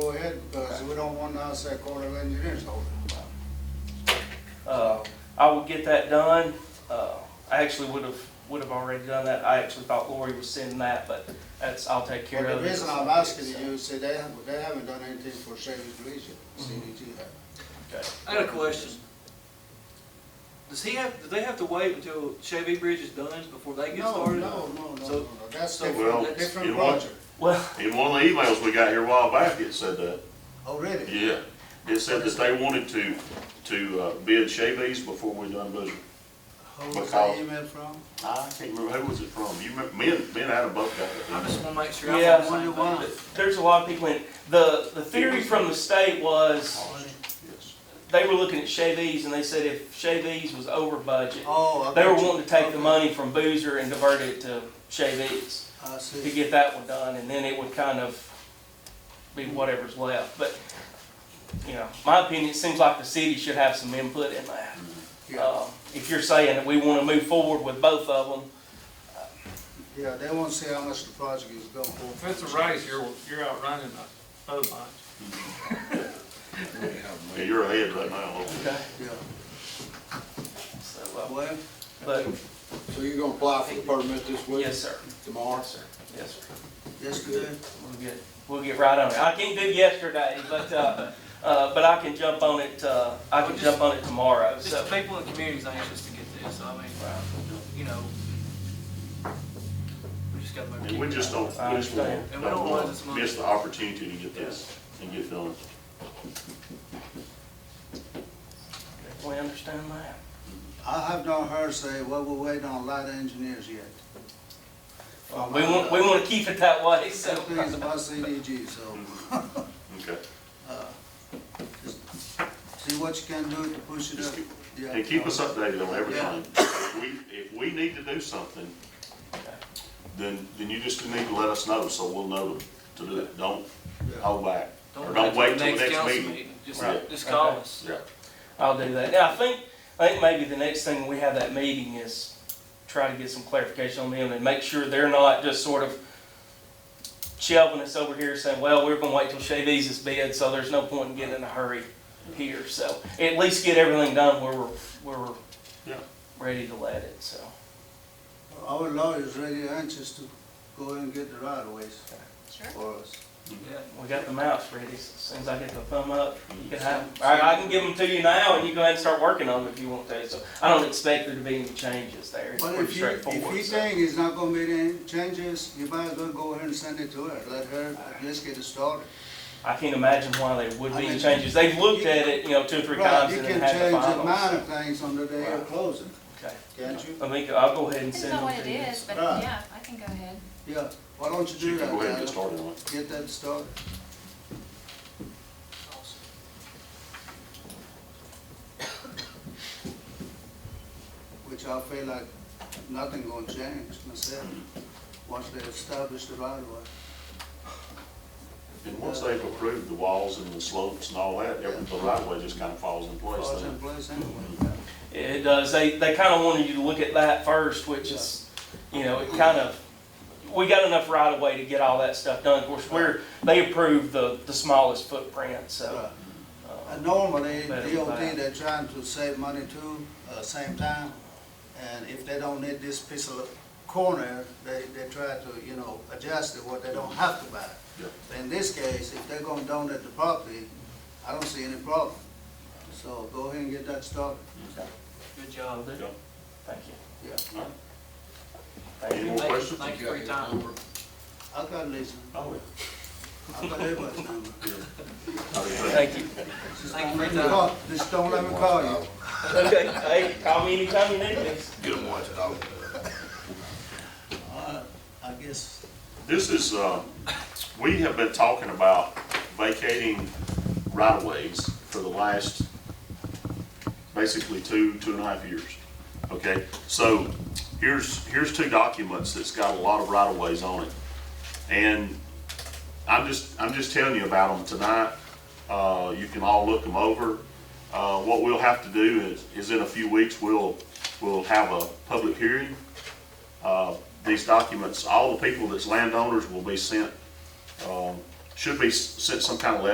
we don't want us at Corps of Engineers holding them up. Uh, I will get that done. Uh, I actually would have, would have already done that. I actually thought Lori was sending that, but that's, I'll take care Well, of it. the reason I'm asking you, see, they haven't, they haven't done anything for Savings Legion, Mm-hmm. CDG have. Okay. I got a question. Does he have, do they have to wait until Chevy Bridge is done before they get No, no, started? no, no, no, So- no. that's so- different, Well, different you know what? project, Well, In one of the emails we got here a while back, it said that, already. yeah. It said that they wanted to, to uh, bid Chevy's before we done Bossier. Who was that Because- email from? I can't remember, who was it from? You remember, me and, me and Adam both got I that just email. wanna make sure. I'm on the yeah, same wonder why. page. there's a lot of people in, the, the theory from the state was, Yes. they were looking at Chevy's and they said if Chevy's was over budget, Oh, I they were got you. wanting to take the Okay. money from Boozer and divert it to Chevy's. I to see. get that one done, and then it would kind of be whatever's left, but, you know, my opinion, it seems like the city should have some input in that. Yeah, Um, If you're saying that we wanna move forward with both of them, yeah, they want to see how much the project is going. Well, if it's a race, you're, you're outrunning the other bunch. Yeah, you're ahead right now, Lord. okay, Yeah, so, uh, well, but, So you're gonna apply for the permit this week? yes, sir, Tomorrow? yes, sir, yesterday, we'll get, we'll get right on it. I can't do yesterday, but, uh, uh, but I can jump on it, uh, I can jump on it tomorrow, so. Just the people in the community's anxious to get this, so I mean, you know, we just gotta make. And we just don't, we just won't- And we don't don't want this wanna money. miss the opportunity to get this and get done. We understand that. I have not heard say, well, we're waiting on light engineers yet. From, We want, we uh, wanna keep it that way, so. Companies about CDG, so, Okay. uh, just see what you can do to push it Just up. keep- Yeah. And keep us updated on everything. We, if we need to do something, then, then you just need to let us know, so we'll know to do it. Don't hold back. Or don't wait till the next council meeting. Just, Right. just call Okay. us. Yeah. I'll do that. Now, I think, I think maybe the next thing we have that meeting is try to get some clarification on them and make sure they're not just sort of shelving us over here saying, well, we're gonna wait till Chevy's is bid, so there's no point in getting in a hurry here. So at least get everything done where we're, where we're Yeah. ready to let it, so. Our lawyer's really anxious to go and get the right of ways Sure. for us. Yeah. We got the mouse ready. As soon as I get the thumb up, you can have, I, I can give them to you now and you go ahead and start working on them if you want to. So I don't expect there to be any changes there. It's But pretty if you, if straightforward. you so. think it's not gonna be any changes, you might as well go ahead and send it to her, let her at least get it started. I can't imagine why there would I be mean- any changes. They've looked at it, you know, two or three Right, times you and then can had the change the minor finals. things on the day of Right. closing, Okay. can't you? I think I'll go ahead and Depends send on them what to it you. is, but Right. yeah, I can go ahead. Yeah, why don't you So you do can that, go ahead and get Adam? started on it. Get that started. Which I feel like nothing gonna change myself, once they establish the right of way. And once they've approved the walls and the slopes and all that, everything, the right way just kind of falls in place Falls in then. place anyway. It does. They, they kind of wanted you to look at that first, which is, you know, it kind of, we got enough right of way to get all that stuff done. Of course, we're, they approved the, the smallest footprint, so. Right. uh, And normally, Better than DOT, that. they're trying to save money too, uh, same time. And if they don't need this piece of corner, they, they try to, you know, adjust it, what they don't have to buy. In this case, if they're gonna donate the property, I don't see any problem. So go ahead and get that started. Good job. Yeah. Thank you. Yeah, Thank Any you. more questions? Thank you for your time. I got Lisa, Oh, I got everybody's number. yeah. Thank you. Just Thank don't you let me for your time. call, just don't let me call you. Okay, hey, call me anytime you need me. Good one. All right, I guess, This is, uh, we have been talking about vacating right-of-ways for the last, basically, two, two and a half years. Okay, so here's, here's two documents that's got a lot of right-of-ways on it. And I'm just, I'm just telling you about them tonight. Uh, you can all look them over. Uh, what we'll have to do is, is in a few weeks, we'll, we'll have a public hearing uh, these documents, all the people that's landowners will be sent, um, should be s- sent some kind of letter